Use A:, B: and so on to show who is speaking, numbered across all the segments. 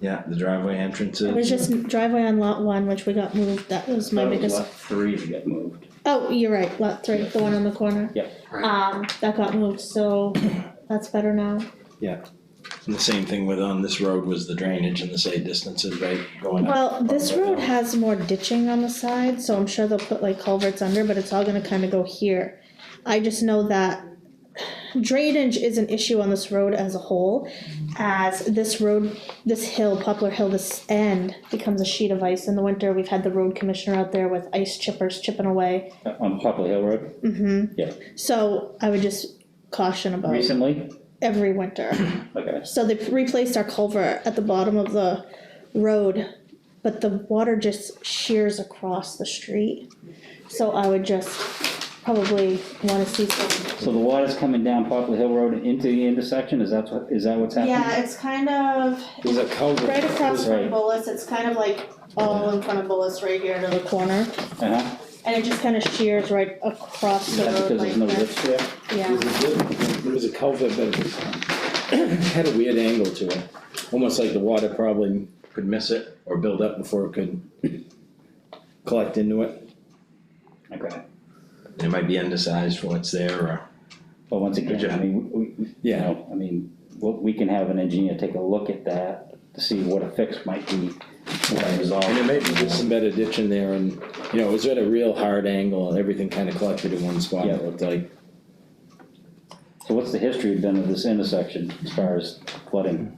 A: yeah, the driveway entrances.
B: It was just driveway on lot one, which we got moved, that was my
C: That was
B: biggest,
C: lot Three to get moved,
B: oh, you're right, lot three, the one on the corner.
C: Yeah.
D: Right.
B: Um, that got moved, so that's better now.
A: And the same thing with on this road was the drainage and the say distances, right, going up.
B: Well, this road has more ditching on the side, so I'm sure they'll put like culverts under, but it's all gonna kinda go here. I just know that drainage is an issue on this road as a whole, as this road, this hill, Poplar Hill, this end becomes a sheet of ice in the winter. We've had the road commissioner out there with ice chippers chipping away.
C: uh, on Poplar Hill Road
B: Mm-hmm.
C: Yeah.
B: So I would just caution about
C: recently,
B: every winter.
C: okay,
B: So they replaced our culvert at the bottom of the road, but the water just shears across the street. So I would just probably wanna see some.
C: so the water's coming down Poplar Hill Road and into the intersection, is that what, is that what's happening?
B: Yeah, it's kind of
A: There's a culvert.
B: right across
C: Right.
B: from Bullis, it's kind of like all in front of Bullis right here to the corner.
C: Uh-huh,
B: And it just kind of shears right across
C: is
B: the
C: that
B: road
C: because
B: like
C: there's no
B: that,
C: ditch there?
B: yeah.
D: There's a good- There was a culvert, but it was- had a weird angle to it, almost like the water probably could miss it or build up before it could collect into it.
C: Okay,
A: It might be undersized for what's there or,
C: but once
A: Good
C: again,
A: job.
C: I mean, we, we, you
D: Yeah,
C: know, I mean, we, we can have an engineer take a look at that to see what a fix might be, what resolve.
D: and it may be just some better ditch in there and, you know, it was at a real hard angle and everything kind of collected in one spot, it looked like.
C: So what's the history been of this intersection as far as flooding?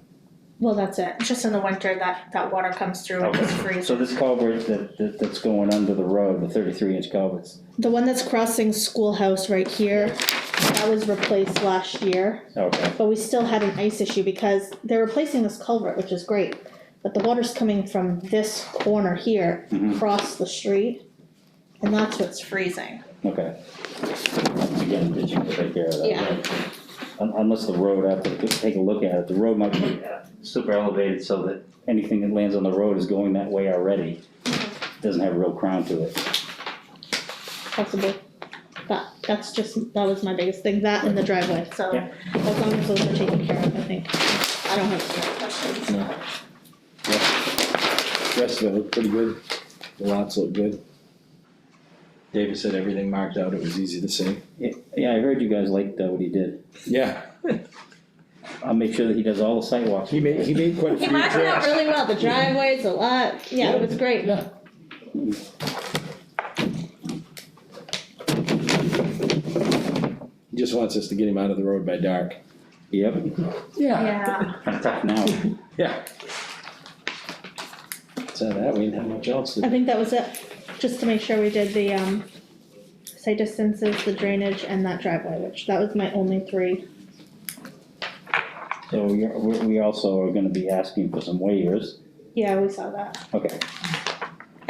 B: Well, that's it, just in the winter that that water comes through and just freezes.
C: So this culvert that, that, that's going under the road, the thirty-three inch culverts,
B: The one that's crossing schoolhouse right here, that was replaced last year,
C: okay,
B: but we still had an ice issue because they're replacing this culvert, which is great. But the water's coming from this corner here,
C: Mhm.
B: across the street, and that's what's freezing.
C: okay. Again, ditching to take care of that.
B: Yeah.
C: right? Un- Unless the road, I have to take a look at it, the road might be uh, super elevated so that anything that lands on the road is going that way already. Doesn't have a real crown to it,
B: Possible. That, that's just, that was my biggest thing, that and the driveway, so
C: Yeah.
B: as long as those are taken care of, I think. I don't have any more questions.
D: Rest of it looked pretty good, the lots looked good.
A: David said everything marked out, it was easy to see.
C: yeah, I heard you guys liked uh, what he did,
D: Yeah,
C: I'll make sure that he does all the sidewalks.
D: he made, he made quite a
B: He
D: few
B: marked it out
D: drafts.
B: really well, the driveways, a lot, yeah, it was great.
D: Yeah. He just wants us to get him out of the road by dark.
C: Yep,
B: Yeah.
C: kinda tough now.
D: So that we didn't have much else
B: I
D: to.
B: think that was it, just to make sure we did the, um, site distances, the drainage, and that driveway, which that was my only three.
C: So we, are- we we also are gonna be asking for some waivers,
B: Yeah, we saw that.
C: okay,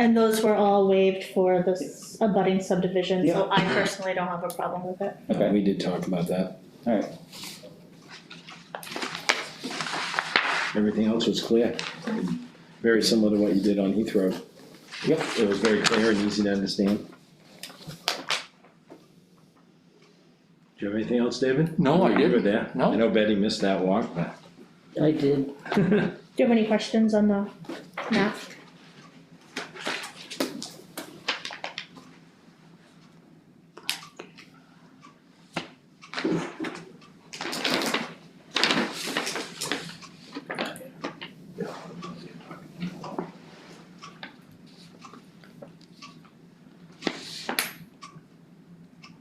B: And those were all waived for the s- abutting subdivision, so I personally don't have a problem with it.
C: okay,
D: Uh, We did talk about that.
C: alright,
D: Everything else was clear. Very similar to what you did on Heath Road.
C: Yep.
D: It was very clear and easy to understand.
A: Do you have anything else, David?
E: No, I
A: You were
E: didn't.
A: there.
E: No.
A: I know Betty missed that walk, but.
F: I did.
B: Do you have any questions on the map?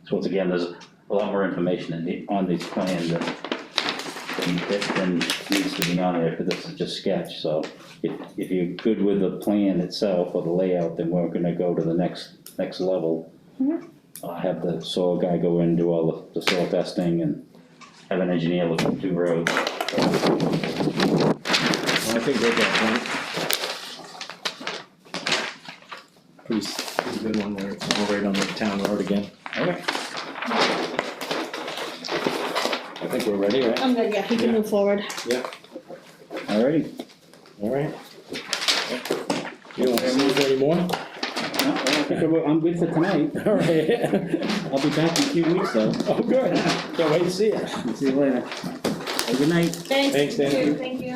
C: so once again, there's a lot more information in the, on these plans that that than needs to be on there, because this is just sketch, so if, if you're good with the plan itself or the layout, then we're gonna go to the next, next level.
B: Mhm.
C: I'll have the soil guy go in, do all the, the soil testing and have an engineer look at two roads.
D: Well, I think they got one. Pretty, s- pretty good one there. It's all right on the town road again.
C: Okay.
D: I think we're ready, right?
B: I'm good, yeah, we can move forward.
C: Alrighty,
D: All right. You don't have anything anymore?
C: No, I think I'm- I'm good for tonight.
D: All right.
C: I'll be back in a few weeks though.
D: Oh, good. Can't wait to see you.
C: See you later. Have a good night.
B: Thanks.
D: Thanks, Dana.
B: Thank you.